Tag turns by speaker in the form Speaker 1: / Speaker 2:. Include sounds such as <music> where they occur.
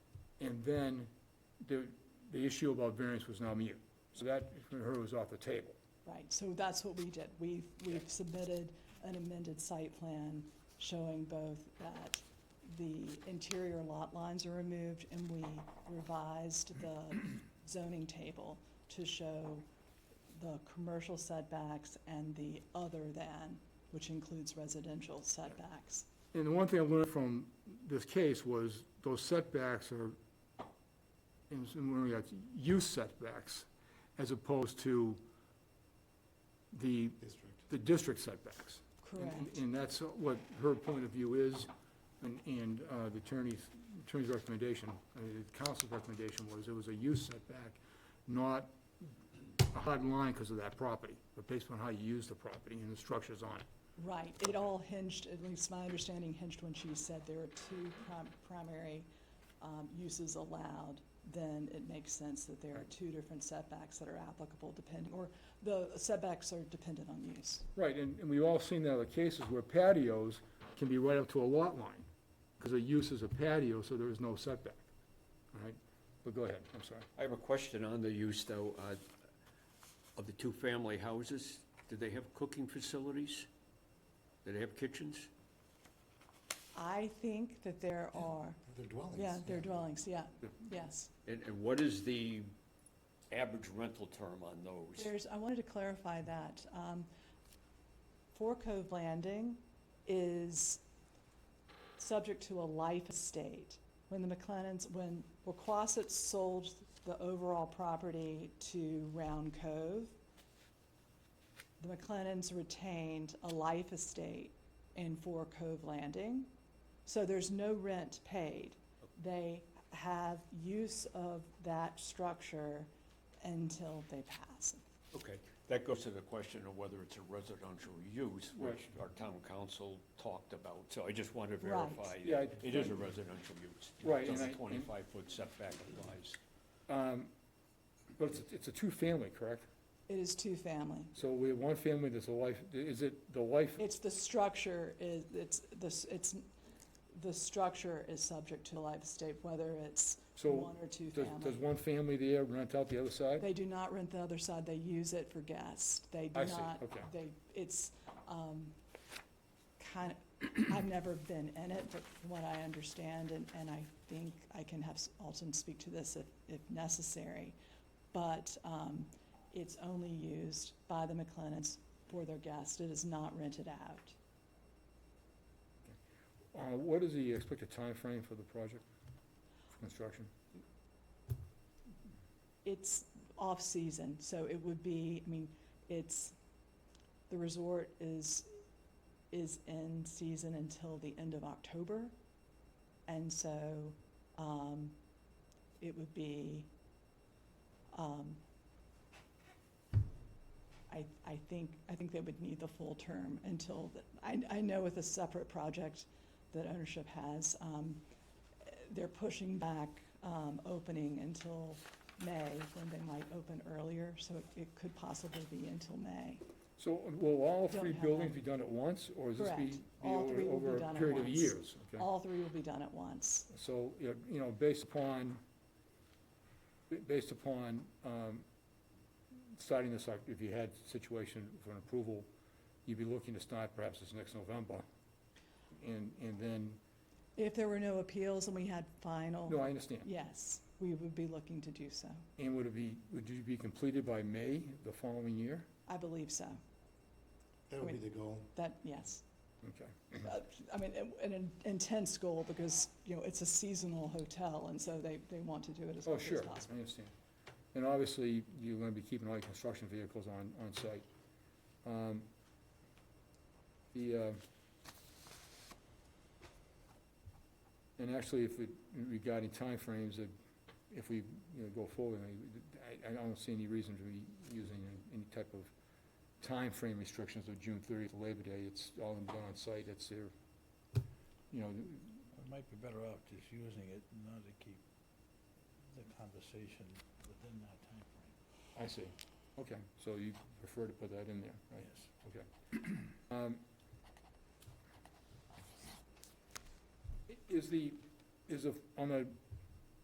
Speaker 1: And then the, the issue about variance was now mute. So that, for her, was off the table.
Speaker 2: Right, so that's what we did. We've, we've submitted an amended site plan showing both that the interior lot lines are removed and we revised the zoning table to show the commercial setbacks and the other than, which includes residential setbacks.
Speaker 1: And the one thing I learned from this case was those setbacks are, and so when we got use setbacks, as opposed to the,
Speaker 3: district.
Speaker 1: the district setbacks. And- and-
Speaker 2: Correct.
Speaker 1: And that's what her point of view is, and, and uh, the attorney's, attorney's recommendation, uh, the council's recommendation was it was a use setback, not a hard line because of that property, but based on how you use the property and the structures on it.
Speaker 2: Right, it all hinged, at least my understanding hinged when she said there are two prim- primary um, uses allowed, then it makes sense that there are two different setbacks that are applicable depending, or the setbacks are dependent on use.
Speaker 1: Right, and, and we've all seen that other cases where patios can be right up to a lot line, because the use is a patio, so there is no setback, all right? But go ahead, I'm sorry.
Speaker 4: I have a question on the use, though, uh, of the two-family houses. Do they have cooking facilities? Do they have kitchens?
Speaker 2: I think that there are,
Speaker 3: They're dwellings.
Speaker 2: yeah, they're dwellings, yeah,
Speaker 1: Yeah.
Speaker 2: yes.
Speaker 4: And, and what is the average rental term on those?
Speaker 2: There's, I wanted to clarify that. Um, Four Cove Landing is subject to a life estate. When the McLennans, when Wacquasit sold the overall property to Round Cove, the McLennans retained a life estate in Four Cove Landing. So there's no rent paid. They have use of that structure until they pass.
Speaker 4: Okay, that goes to the question of whether it's a residential use, which our town council talked about. So I just want to
Speaker 2: Right.
Speaker 4: verify
Speaker 1: Yeah, I-
Speaker 4: that it is a residential use.
Speaker 1: Right,
Speaker 4: So
Speaker 1: and
Speaker 4: the
Speaker 1: I- and-
Speaker 4: twenty-five foot setback applies.
Speaker 1: Um, But it's, it's a two-family, correct?
Speaker 2: It is two-family.
Speaker 1: So we have one family that's a life, is it the life,
Speaker 2: It's the structure is, it's, the s- it's, the structure is subject to life estate, whether it's
Speaker 1: so
Speaker 2: one or two
Speaker 1: does, does
Speaker 2: family.
Speaker 1: one family there rent out the other side?
Speaker 2: They do not rent the other side, they use it for guests. They do
Speaker 1: I see,
Speaker 2: not,
Speaker 1: okay.
Speaker 2: they, it's, um, kind of, <clears throat> I've never been in it, but from what I understand, and, and I think I can have s- Alton speak to this if, if necessary. But, um, it's only used by the McLennans for their guests. It is not rented out.
Speaker 1: Uh, what is the expected time frame for the project, for construction?
Speaker 2: it's off-season, so it would be, I mean, it's, the resort is, is in season until the end of October. And so, um, it would be, um, I, I think, I think they would need the full term until, the- I, I know with a separate project that ownership has, um, they're pushing back, um, opening until May, when they might open earlier, so it- it could possibly be until May.
Speaker 1: So will all
Speaker 2: Don't
Speaker 1: three
Speaker 2: have
Speaker 1: buildings
Speaker 2: one.
Speaker 1: be done at once, or is this be,
Speaker 2: Correct.
Speaker 1: be
Speaker 2: All
Speaker 1: over
Speaker 2: three will be
Speaker 1: over
Speaker 2: done
Speaker 1: a
Speaker 2: at
Speaker 1: period of
Speaker 2: once.
Speaker 1: years? Okay.
Speaker 2: All three will be done at once.
Speaker 1: So, you know- you know, based upon, based upon um, starting this, like, if you had situation for an approval, you'd be looking to start perhaps this next November. And, and then,
Speaker 2: If there were no appeals and we had
Speaker 1: no,
Speaker 2: final,
Speaker 1: I understand.
Speaker 2: yes, we would be looking to do so.
Speaker 1: And would it be, would you be completed by May the following year?
Speaker 2: I believe so.
Speaker 3: That would be the goal.
Speaker 2: That, yes.
Speaker 1: Okay.
Speaker 2: Uh, I mean, an- an intense goal because, you know, it's a seasonal hotel, and so they, they want to do it as
Speaker 1: Oh,
Speaker 2: quickly
Speaker 1: sure,
Speaker 2: as possible.
Speaker 1: I understand. And obviously, you're gonna be keeping all your construction vehicles on, on site. Um, The, uh, and actually, if we, regarding timeframes, uh, if we, you know, go forward, I, I don't see any reason to be using any type of time frame restrictions of June thirtieth, Labor Day, it's all done on site, it's their, you know,
Speaker 5: I might be better off just using it in order to keep the conversation within that timeframe.
Speaker 1: I see, okay, so you prefer to put that in there, right?
Speaker 5: Yes.
Speaker 1: Okay. Um, i- Is the, is the, on the